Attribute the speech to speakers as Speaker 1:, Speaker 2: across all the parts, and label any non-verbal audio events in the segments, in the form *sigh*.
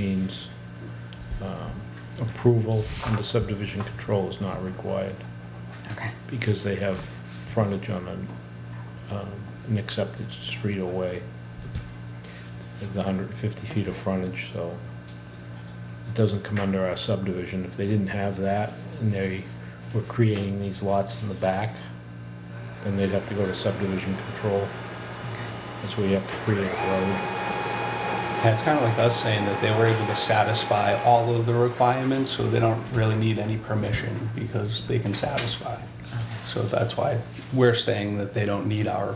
Speaker 1: means um, approval under subdivision control is not required
Speaker 2: Okay.
Speaker 1: because they have frontage on an, um, an accepted street away. With the hundred and fifty feet of frontage, so it doesn't come under our subdivision. If they didn't have that and they were creating these lots in the back, then they'd have to go to subdivision control. That's where you have to create a road.
Speaker 3: Yeah, it's kind of like us saying that they were able to satisfy all of the requirements, so they don't really need any permission because they can satisfy. So that's why we're saying that they don't need our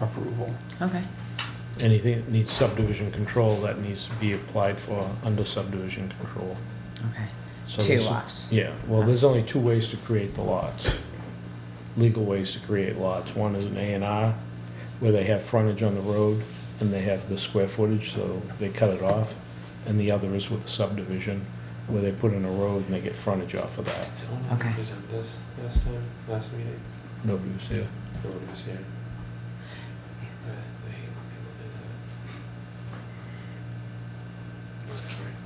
Speaker 3: approval.
Speaker 2: Okay.
Speaker 1: anything that needs subdivision control, that needs to be applied for under subdivision control.
Speaker 2: Okay.
Speaker 1: So
Speaker 2: Two
Speaker 1: there's-
Speaker 2: lots.
Speaker 1: Yeah, well, there's only two ways to create the lots, legal ways to create lots. One is an A and R, where they have frontage on the road, and they have the square footage, so they cut it off. And the other is with the subdivision, where they put in a road and they get frontage off of that.
Speaker 2: Okay.
Speaker 4: Okay. Presented this last time, last meeting,
Speaker 1: Nobody was here.
Speaker 4: nobody was here. Uh, I hate when people do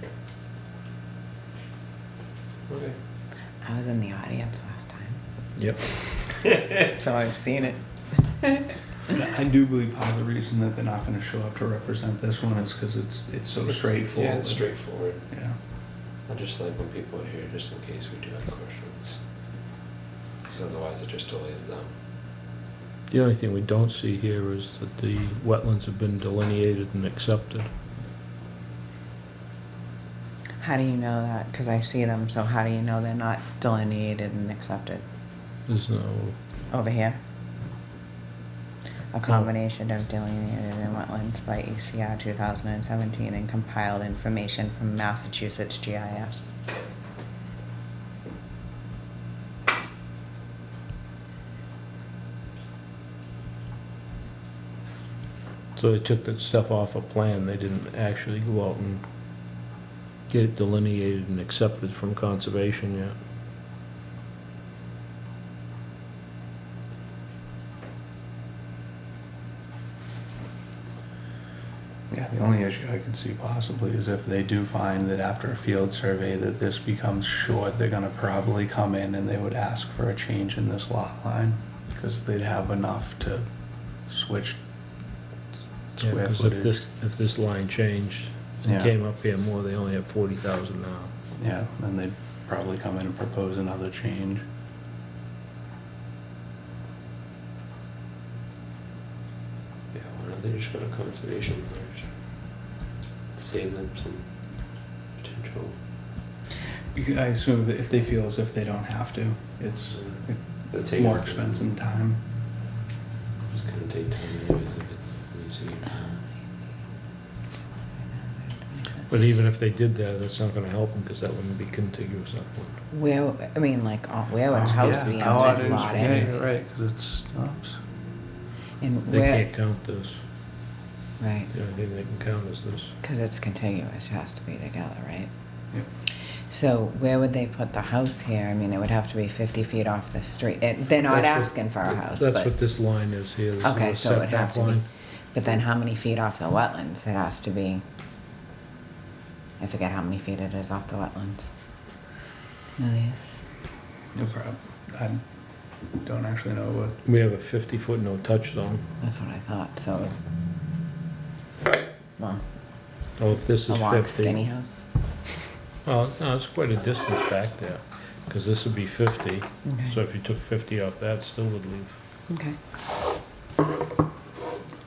Speaker 4: that. Whatever. Okay.
Speaker 2: I was in the audience last time,
Speaker 1: Yep.
Speaker 2: *laughs* so I've seen it.
Speaker 3: I do believe part of the reason that they're not going to show up to represent this one is because it's, it's so
Speaker 4: It's-
Speaker 3: straightforward.
Speaker 4: Yeah, it's straightforward.
Speaker 3: Yeah.
Speaker 4: I just like when people are here, just in case we do have questions. Because otherwise it just delays them.
Speaker 1: The only thing we don't see here is that the wetlands have been delineated and accepted.
Speaker 2: How do you know that? Because I see them, so how do you know they're not delineated and accepted
Speaker 1: There's no
Speaker 2: over here? A combination of delineated and wetlands by E ECR 2017 and compiled information from Massachusetts GIS.
Speaker 1: So they took that stuff off a plan, they didn't actually go out and get it delineated and accepted from conservation yet.
Speaker 3: Yeah, the only issue I could see possibly is if they do find that after a field survey that this becomes short, they're gonna probably come in and they would ask for a change in this lot line, because they'd have enough to switch square
Speaker 1: Because if
Speaker 3: footage.
Speaker 1: this, if this line changed
Speaker 3: Yeah.
Speaker 1: and came up here more, they only have forty thousand now.
Speaker 3: Yeah, and they'd probably come in and propose another change.
Speaker 4: Yeah, why don't they just go to conservation first? Save them some potential.
Speaker 3: I assume if they feel as if they don't have to, it's
Speaker 4: Let's take it.
Speaker 3: and time.
Speaker 4: It's gonna take time anyways if it needs to be done.
Speaker 1: But even if they did that, that's not gonna help them, because that wouldn't be contiguous upland.
Speaker 2: Where, I mean, like, uh, where
Speaker 1: Oh,
Speaker 2: would house be
Speaker 3: Yeah,
Speaker 2: on this
Speaker 3: outings,
Speaker 2: lot
Speaker 3: yeah,
Speaker 2: anyways?
Speaker 3: you're Right, because it's, oops.
Speaker 2: And
Speaker 1: They
Speaker 2: where,
Speaker 1: can't count this,
Speaker 2: right.
Speaker 1: the only thing they can count is this.
Speaker 2: Because it's contiguous, it has to be together, right?
Speaker 3: Yep.
Speaker 2: So where would they put the house here? I mean, it would have to be fifty feet off the street. It- They're not
Speaker 1: That's what-
Speaker 2: asking for a house,
Speaker 1: That's what
Speaker 2: but,
Speaker 1: this line is here, this
Speaker 2: okay,
Speaker 1: little
Speaker 2: so it would have
Speaker 1: setback
Speaker 2: to be.
Speaker 1: line.
Speaker 2: But then how many feet off the wetlands? It has to be, I forget how many feet it is off the wetlands. No, these-
Speaker 3: No problem. I don't actually know what
Speaker 1: We have a fifty-foot no-touch zone,
Speaker 2: That's what I thought, so. Well,
Speaker 1: oh, if this
Speaker 2: a
Speaker 1: is
Speaker 2: walk
Speaker 1: fifty.
Speaker 2: skinny house.
Speaker 1: Well, no, it's quite a distance back there, because this would be fifty, so
Speaker 2: Okay,
Speaker 1: if you took fifty off that, still would leave
Speaker 2: okay.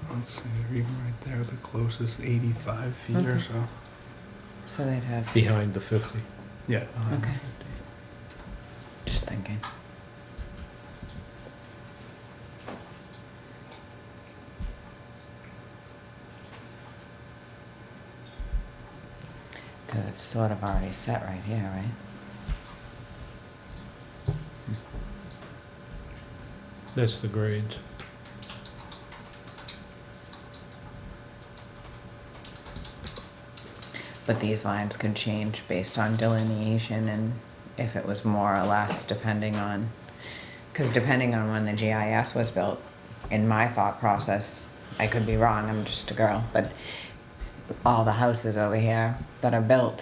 Speaker 3: Let's see, they're even right there, the closest 85 feet or
Speaker 2: Okay.
Speaker 3: so.
Speaker 2: So they'd have,
Speaker 1: behind the 50.
Speaker 3: Yeah. behind.
Speaker 2: okay. Just thinking. Cause it's sort of already set right here, right?
Speaker 1: That's the grades.
Speaker 2: But these lines could change based on delineation and if it was more or less depending on, cause depending on when the GIS was built, in my thought process, I could be wrong, I'm just a girl, but all the houses over here that are built